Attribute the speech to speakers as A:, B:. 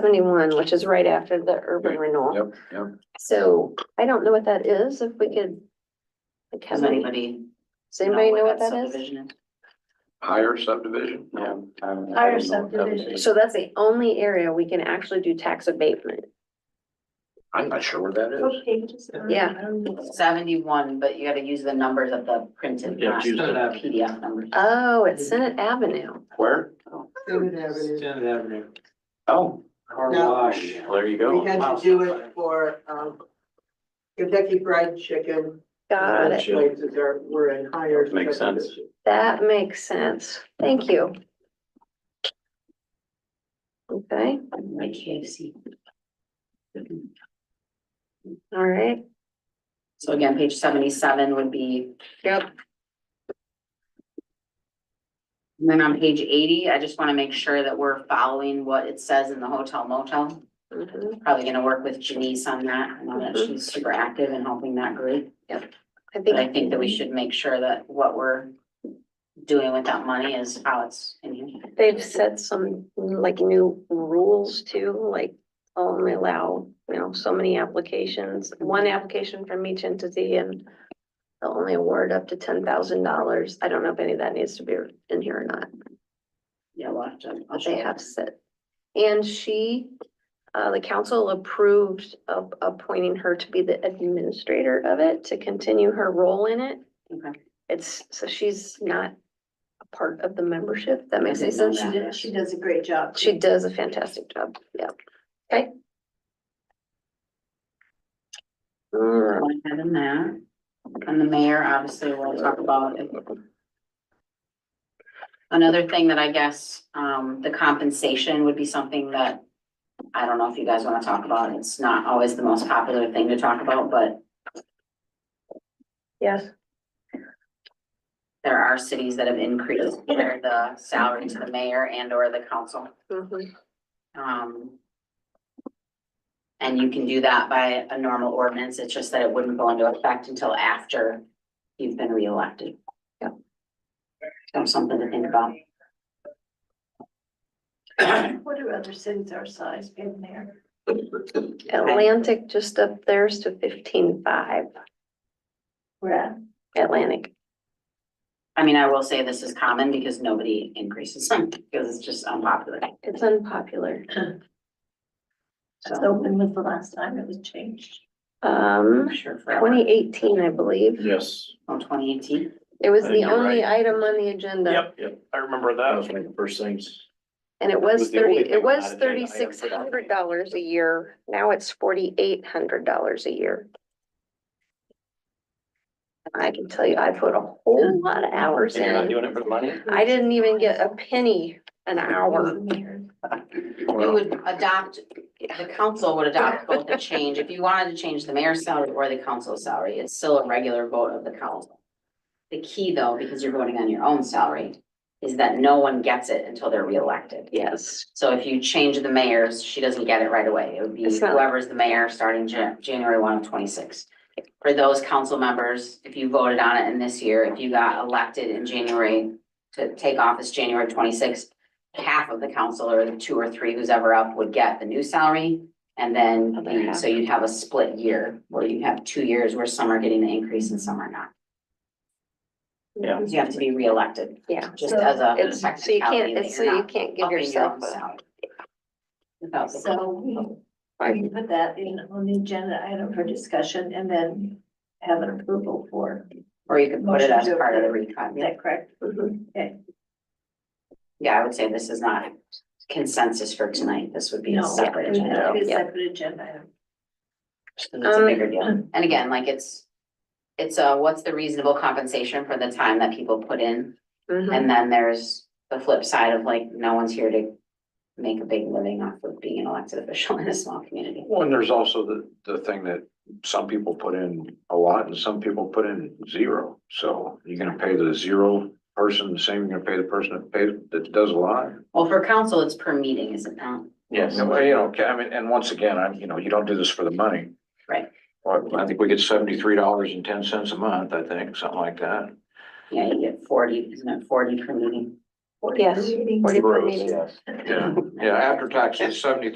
A: seventy-one, which is right after the urban
B: Right,
A: renewal.
B: Yep, yep.
A: So I don't know what that is, if we could. like, have
C: Does
A: any-
C: anybody?
A: Does anybody know what that is?
C: subdivision
B: Higher subdivision?
C: No,
B: Um, I
D: Higher
B: don't know what that would be.
A: So that's the only area we can actually do tax abatement.
B: I'm not sure what that is.
A: Yeah.
C: is? Seventy-one, but you gotta use the numbers of the printed,
E: Yeah,
C: not the
E: use the-
C: PDF numbers.
A: Oh,
C: Mm-hmm.
A: it's Senate Avenue.
B: Where?
D: Senate Avenue.
E: Senate Avenue,
B: Oh,
E: car
D: No.
E: wash.
B: well, there you
D: We
B: go.
D: had to do it for, um, Kentucky Fried Chicken.
A: Got
D: Those
A: it.
D: Places are, were in higher.
B: Makes sense.
D: subdivision.
A: That makes sense. Thank you. Okay,
C: Like KFC.
A: all right.
C: So again, page seventy-seven would be,
A: Yep.
C: and then on page eighty, I just wanna make sure that we're following what it says in the hotel motel.
A: Mhm.
C: Probably gonna work with Janice on that, I know that she's super active in helping that group.
A: I
C: But I think that we should make sure that what we're doing with that money is how it's in here.
A: They've set some like new rules too, like only allow, you know, so many applications, one application from each entity and they'll only award up to ten thousand dollars. I don't know if any of that needs to be in here or not,
C: Yeah, we'll have to. I'll
A: but
C: show
A: they
C: you.
A: have set. And she, uh, the council approved of appointing her to be the administrator of it, to continue her role in it.
C: Okay.
A: It's, so she's not a part of the membership. That makes any
C: didn't know
A: sense?
C: that.
F: She does, she does a great job.
A: She does a fantastic job, yeah. Okay. Mm,
C: Go ahead and that. And the mayor, obviously, we'll talk about it. Another thing that I guess, um, the compensation would be something that, I don't know if you guys wanna talk about, it's not always the most popular thing to talk about, but
A: Yes,
C: there are cities that have increased their, the salary to the mayor and or the council.
A: mhm,
C: Um. And you can do that by a normal ordinance, it's just that it wouldn't go into effect until after you've been reelected.
A: Yep.
C: So something to think about.
F: What are other cities our size in there?
A: Atlantic just up there's to fifteen five,
F: We're at,
A: Atlantic.
C: I mean, I will say this is common because nobody increases them, because it's just unpopular.
A: It's unpopular.
C: So,
F: so when was the last time it was changed?
A: Um,
C: I'm sure for
A: twenty eighteen, I believe.
B: Yes.
C: twenty eighteen,
A: It was
B: I
A: the
B: think Uh, you're
A: only
B: right.
A: item on the agenda.
E: yep, I remember
B: That was one of the first things.
A: And it was
E: was the only
A: thirty,
E: thing
A: it
E: on
A: was
E: that agenda item for
A: thirty-six
E: that
A: hundred
E: meeting.
A: dollars a year. Now it's forty-eight hundred dollars a year. I can tell you, I put a whole lot of hours in.
E: And you're not doing it for the money?
A: I didn't even get a penny an hour.
C: we
B: Well,
C: would adopt, the council would adopt both the change, if you wanted to change the mayor's salary or the council's salary, it's still a regular vote of the council. The key though, because you're voting on your own salary, is that no one gets it until they're reelected.
A: Yes,
C: So if you change the mayor's, she doesn't get it right away. It would be
A: It's not-
C: whoever's the mayor starting Jan- January one of twenty-six. For those council members, if you voted on it in this year, if you got elected in January to take office January twenty-sixth, half of the council or the two or three who's ever up would get the new salary. And then,
A: Other
C: you-
A: half.
C: so you'd have a split year where you have two years where some are getting the increase and some are not.
B: Yeah.
C: You have to be reelected,
A: yeah.
C: just as a
A: It's, so you
C: technicality
A: can't,
C: that
A: it's, so
C: you're
A: you
C: not
A: can't give
C: upping your own
A: yourself a.
C: salary. Without the
F: So we, we
A: I-
F: can put that in on the agenda item for discussion and then have an approval for, is
C: Or you could put it as
F: Motion to
C: part of the recon. Yeah.
F: that correct?
A: mhm.
C: Yeah, I would say this is not consensus for tonight. This would be a
F: No.
C: separate agenda.
F: It is
A: Yeah.
F: separate agenda item.
C: It's a
A: Um,
C: bigger deal. And again, like it's, it's a, what's the reasonable compensation for the time that people put in?
D: Mm-hmm.
A: Mhm.
C: And then there's the flip side of like, no one's here to make a big living off of being an elected official in a small community.
B: and there's also the, the thing that some people put in a lot and some people put in zero. So you're gonna pay the zero person the same, you're gonna pay the person that pays, that does a lot.
C: Well, for council, it's per meeting, is it not?
E: Yes.
B: No, you know, I mean, and once again, I'm, you know, you don't do this for the money.
C: Right.
B: Well, I think we get seventy-three dollars and ten cents a month, I think, something like that.
C: Yeah, you get forty, isn't it forty per meeting?
A: Yes.
F: Meeting.
A: Forty per
E: Gross,
A: meeting.
E: yes.
B: Yeah, yeah, after taxes, seventy-three